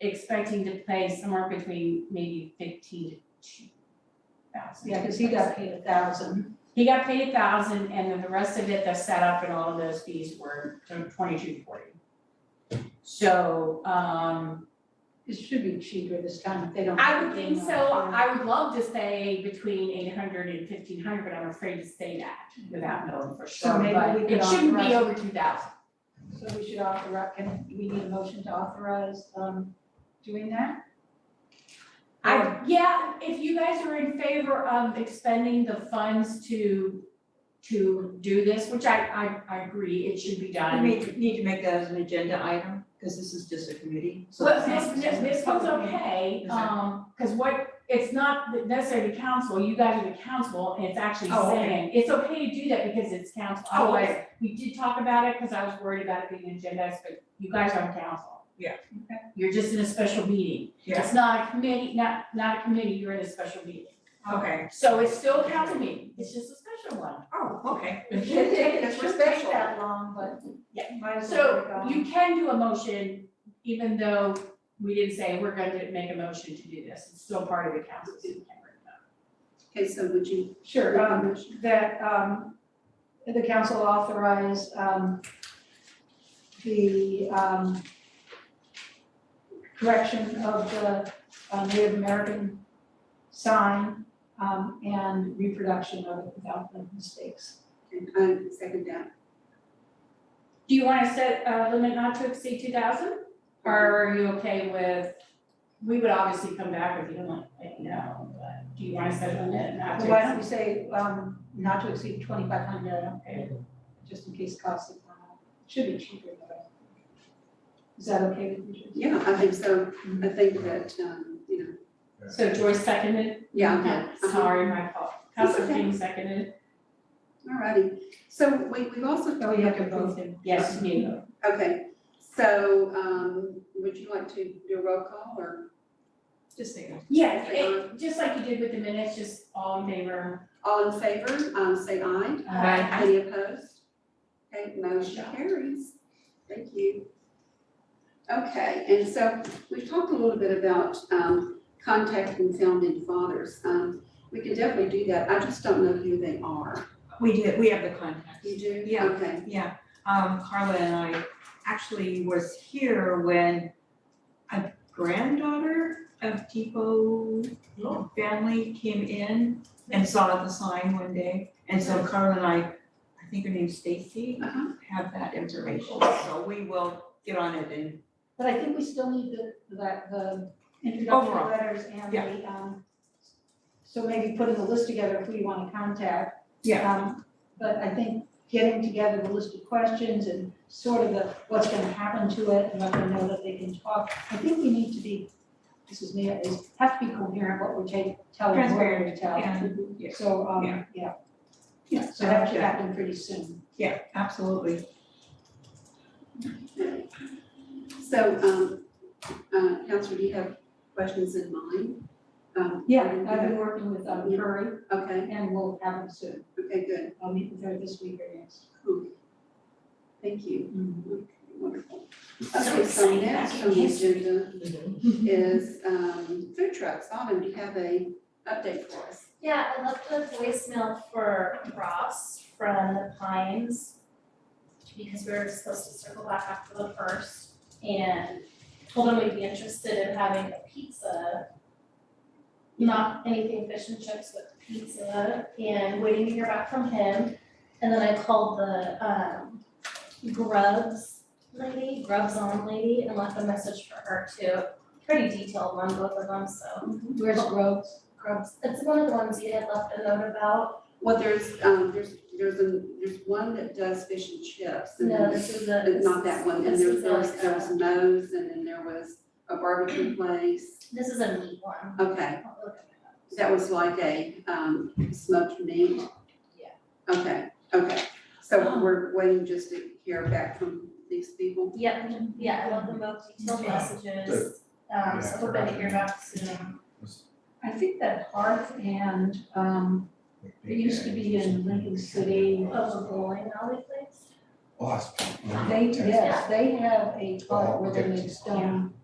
expecting to pay somewhere between maybe fifteen to two thousand. Yeah, because he got paid a thousand. He got paid a thousand and then the rest of it, the setup and all of those fees were twenty-two forty. So, um, It should be cheaper this time if they don't. I would think so, I would love to say between 800 and 1500, but I'm afraid to say that without knowing for So sure, maybe we but could it shouldn't be authorize- over two thousand. So we should authorize, can, do we need a motion to authorize, um, doing that? I, yeah, if you guys are in favor of expending the funds to, to do this, which I, I, I agree, it should be We done. may need to make that as an agenda item, because this is just a committee, so. Well, this, this, this one's okay, Is it? um, cause what, it's not necessarily council, you guys are the council, and it's actually Oh, okay. saying, it's okay to do that because it's council, Oh, okay. otherwise, we did talk about it, cause I was worried about it being agendized, but you guys aren't council. Yeah. Okay. You're just in a special meeting, Yeah. it's not a committee, not, not a committee, you're in a special meeting, Okay, so it's still a council meeting, it's just a special one. oh, okay. It shouldn't take, it That's shouldn't take respectful. that long, but Yeah. might as well So you can do a motion, even though we didn't say we're going to make a motion to do this, it's still part of the council, so you can bring it up. Okay, so would you? Sure, um, that, um, the council authorize, um, the, um, correction of the uh, Native American sign, um, and reproduction of it without the mistakes. And I second that. Do you wanna set a limit not to exceed two thousand? Or are you okay with, we would obviously come back if you don't like, no, but do you wanna set a limit not to Why don't exceed? we say, um, not to exceed twenty-five hundred, I don't care, just in case costs have gone up. Should be cheaper, but. Is that okay with you? Jason? Yeah, I think so. I think that, um, you know, So Joyce seconded, yeah, okay. Uh-huh. sorry, my fault, It's Councilor okay. King seconded, Alrighty. So we, we've also. Oh, you have to vote. yes, you, Okay, so, um, would you like to do a roll call or Just say it. yeah, it- just like you did with the minutes, just all in favor. all in favor, um, say aye. Aye. Any opposed? Okay, motion carries. Thank you. Okay, and so we've talked a little bit about um, contacting founding fathers. Um, We can definitely do that. I just don't know who they are. We did, we have the contacts. You do? Yeah. Okay. Yeah, um, Carla and I actually was here when a granddaughter of Depot family came in and saw the sign one day. And so Carla and I, I think her name's Stacy, Uh-huh. have that information, so we will get on it and, But I think we still need the, that, the introductory Overall, letters and yeah. the, um, so maybe putting the list together of who you wanna contact. yeah, Um, but I think getting together the list of questions and sort of the, what's gonna happen to it and let them know that they can talk. I think we need to be, this is me, is have to be coherent what we're taking, telling, what we're gonna tell. Transparent, yeah. So, Yeah. um, yeah, yeah, so that should happen pretty soon. yeah, absolutely. So, um, uh, Counselor, do you have questions in mind? Um, I've been working with, um, Curry Okay, and we'll have them soon. okay, good. I'll meet with her this week or next. Thank you. Mhm. Wonderful. So Okay, so exciting, next back on in the history. agenda is um, food trucks. Autumn, do you have a update for us? Yeah, I left a voicemail for Ross from the Pines because we were supposed to circle back after the first and told him we'd be interested in having a pizza. Not anything fish and chips, but pizza and waiting to hear back from him. And then I called the um Grubs lady, Grubs on lady and left a message for her too. Pretty detailed on both of them, so Where's Groves? Grubs, it's one of the ones you had left a note about. Well, there's, um, there's, there's a, there's one that does fish and chips. and No, then- this is a. but Not that one, and this there is there was, like there was a- Mo's, and then there was a barbecue place. This is a meat one. Okay, I'll look at that. That was like a um smoked meat? Yeah. Okay, okay, so we're waiting just to hear back from these people? Yep, yeah, I love them both, detailed messages, um, so hoping to hear back soon. I think that Hearth and, um, it used to be in Lincoln City. Oh, the bowling alley place? Awesome. né? They, yes, they have a part where they make stone